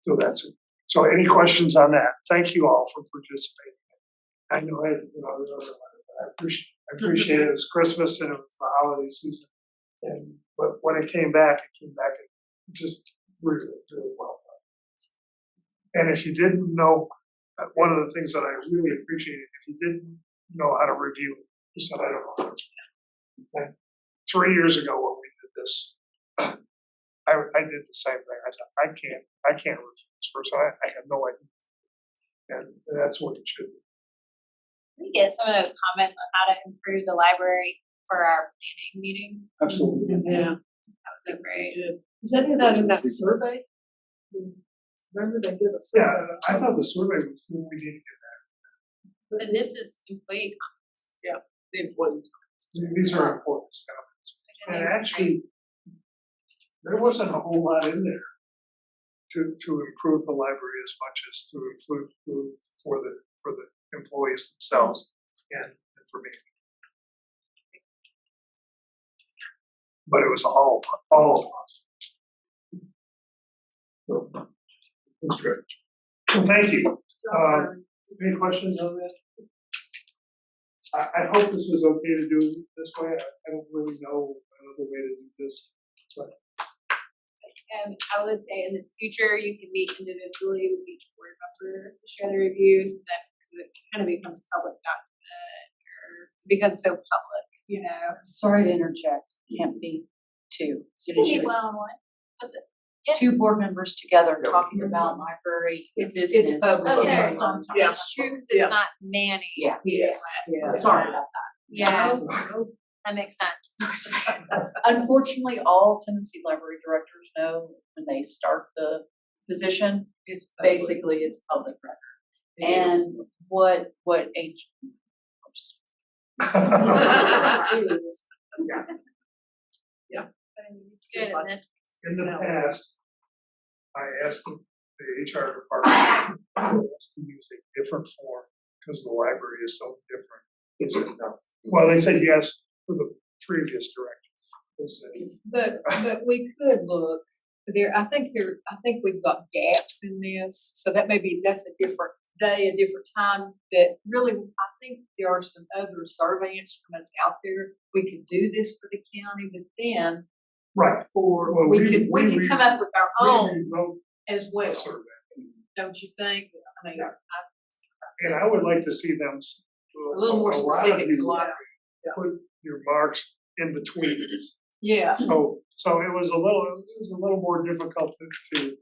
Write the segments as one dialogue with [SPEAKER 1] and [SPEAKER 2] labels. [SPEAKER 1] So that's it. So any questions on that? Thank you all for participating. I know I, you know, I was over my- I appreciate, I appreciate it. It was Christmas and it was the holiday season. And, but when it came back, it came back and just really, really well done. And if you didn't know, uh, one of the things that I really appreciated, if you didn't know how to review, you said, I don't know. how to." And Three years ago when we did this, I, I did the same thing. I said, I can't, I can't review this person. I, I have no idea. And that's what it should be.
[SPEAKER 2] we get some of those comments on how to improve the library for our planning meeting.
[SPEAKER 1] Absolutely.
[SPEAKER 3] Yeah.
[SPEAKER 2] That was a great.
[SPEAKER 3] Is that in that, in that survey? Remember they did a survey?
[SPEAKER 1] Yeah, I thought the survey was what we needed.
[SPEAKER 2] But this is employee
[SPEAKER 3] The employee.
[SPEAKER 1] These are important comments. And
[SPEAKER 2] confidence.
[SPEAKER 1] actually, there wasn't a whole lot in there to, to improve the library as much as to improve, improve for the, for the employees themselves and and for me. But it was all, all of us. So, that's great. Well, thank you.
[SPEAKER 4] Uh,
[SPEAKER 1] Um, any questions on that? I, I hope this was okay to do this way. I, I don't really know another way to do this.
[SPEAKER 2] Um, I would say in the future, you can meet individually with each board member to share the reviews, and then it kind of becomes public document or becomes so public, you know.
[SPEAKER 4] Sorry to interject, can't be two. So did
[SPEAKER 2] Maybe
[SPEAKER 4] you,
[SPEAKER 2] one on one.
[SPEAKER 4] two board members together
[SPEAKER 1] Yeah.
[SPEAKER 4] talking about library
[SPEAKER 3] It's-
[SPEAKER 4] business.
[SPEAKER 3] it's public.
[SPEAKER 2] Okay.
[SPEAKER 4] Sometimes.
[SPEAKER 3] Yeah.
[SPEAKER 2] It's true, 'cause
[SPEAKER 3] Yeah.
[SPEAKER 2] it's not managed.
[SPEAKER 4] Yeah.
[SPEAKER 3] Yes.
[SPEAKER 4] Yeah. Sorry about
[SPEAKER 2] Yeah,
[SPEAKER 3] Oh,
[SPEAKER 2] that makes sense.
[SPEAKER 4] that. Unfortunately, all Tennessee library directors know when they start the position,
[SPEAKER 3] It's public.
[SPEAKER 4] basically it's public record.
[SPEAKER 3] It is.
[SPEAKER 4] And what, what H.
[SPEAKER 2] But it's
[SPEAKER 3] Just
[SPEAKER 2] good,
[SPEAKER 3] like-
[SPEAKER 2] and that's
[SPEAKER 1] In the
[SPEAKER 3] So-
[SPEAKER 1] past, I asked the the HR department for us to use a different form because the library is so different. They said no. Well, they said yes for the previous director. They said,
[SPEAKER 5] But, but we could look, there, I think there, I think we've got gaps in this, so that may be, that's a different day, a different time, that really, I think there are some other survey instruments out there, we could do this for the county, but then
[SPEAKER 1] right. Well,
[SPEAKER 5] for, we
[SPEAKER 1] we-
[SPEAKER 5] could, we
[SPEAKER 1] we-
[SPEAKER 5] could come up with our
[SPEAKER 1] We
[SPEAKER 5] own
[SPEAKER 1] wrote
[SPEAKER 5] as
[SPEAKER 1] a
[SPEAKER 5] well,
[SPEAKER 1] survey.
[SPEAKER 5] don't you think? I mean, I-
[SPEAKER 1] And I would like to see them. s-
[SPEAKER 5] a little more
[SPEAKER 1] lot of
[SPEAKER 5] specific to
[SPEAKER 1] you
[SPEAKER 5] library,
[SPEAKER 1] Put your marks in between these.
[SPEAKER 5] yeah,
[SPEAKER 1] So, so it was a little, it was a little more difficult to, to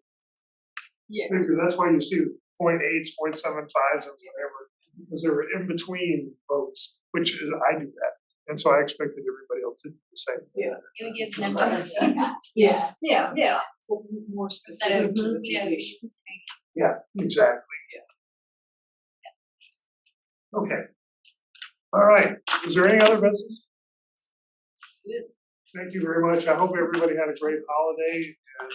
[SPEAKER 5] yeah,
[SPEAKER 1] figure, that's why you see point eights, point seven fives and whatever. Because they were in between votes, which is, I do that, and so I expected everybody else to do the same. thing.
[SPEAKER 2] It would give them better feedback.
[SPEAKER 5] yes, yeah, yeah, for more specific to the
[SPEAKER 2] You know,
[SPEAKER 5] position.
[SPEAKER 1] Yeah, exactly. Okay. All right, is there any other business? Thank you very much, I hope everybody had a great holiday, and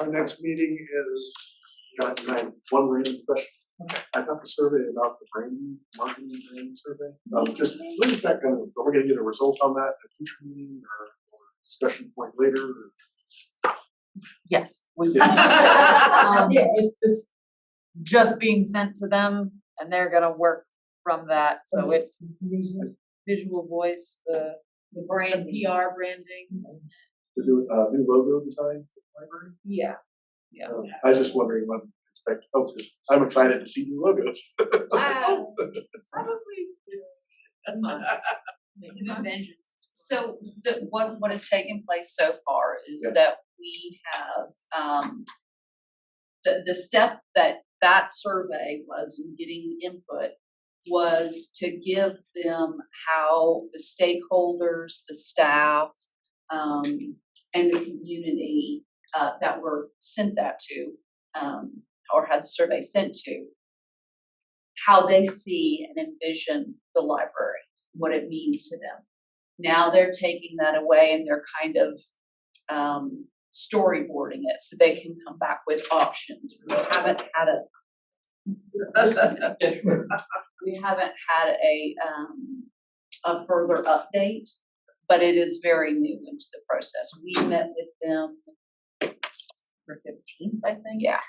[SPEAKER 1] our next meeting is
[SPEAKER 6] John, can I have one random question? I got the survey about the brain, marketing brain survey,
[SPEAKER 1] Mm-hmm.
[SPEAKER 6] um, just, when is that gonna, are we gonna get a result on that at a future meeting or or discussion point later? or-
[SPEAKER 4] Yes. we- Um,
[SPEAKER 5] Yes.
[SPEAKER 4] It's it's just being sent to them and they're gonna work from that, so it's visual voice, the
[SPEAKER 5] The
[SPEAKER 4] brand
[SPEAKER 5] brand,
[SPEAKER 4] PR branding.
[SPEAKER 6] To do a new logo design for the library?
[SPEAKER 4] Yeah. Yeah.
[SPEAKER 6] Um, I was just wondering when to expect, oh, just, I'm excited to see new logos.
[SPEAKER 2] Wow.
[SPEAKER 4] Maybe.
[SPEAKER 2] oh,
[SPEAKER 4] So the, what, what has taken place so far is
[SPEAKER 6] Yeah.
[SPEAKER 4] that we have, um, the, the step that that survey was in getting input was to give them how the stakeholders, the staff, um, and the community, uh, that were sent that to, um, or had the survey sent to, how they see and envision the library, what it means to them now they're taking that away and they're kind of um, storyboarding it so they can come back with options. We haven't had a we haven't had a um, a further update, but it is very new into the process. We met with them for fifteenth, I think. Yeah,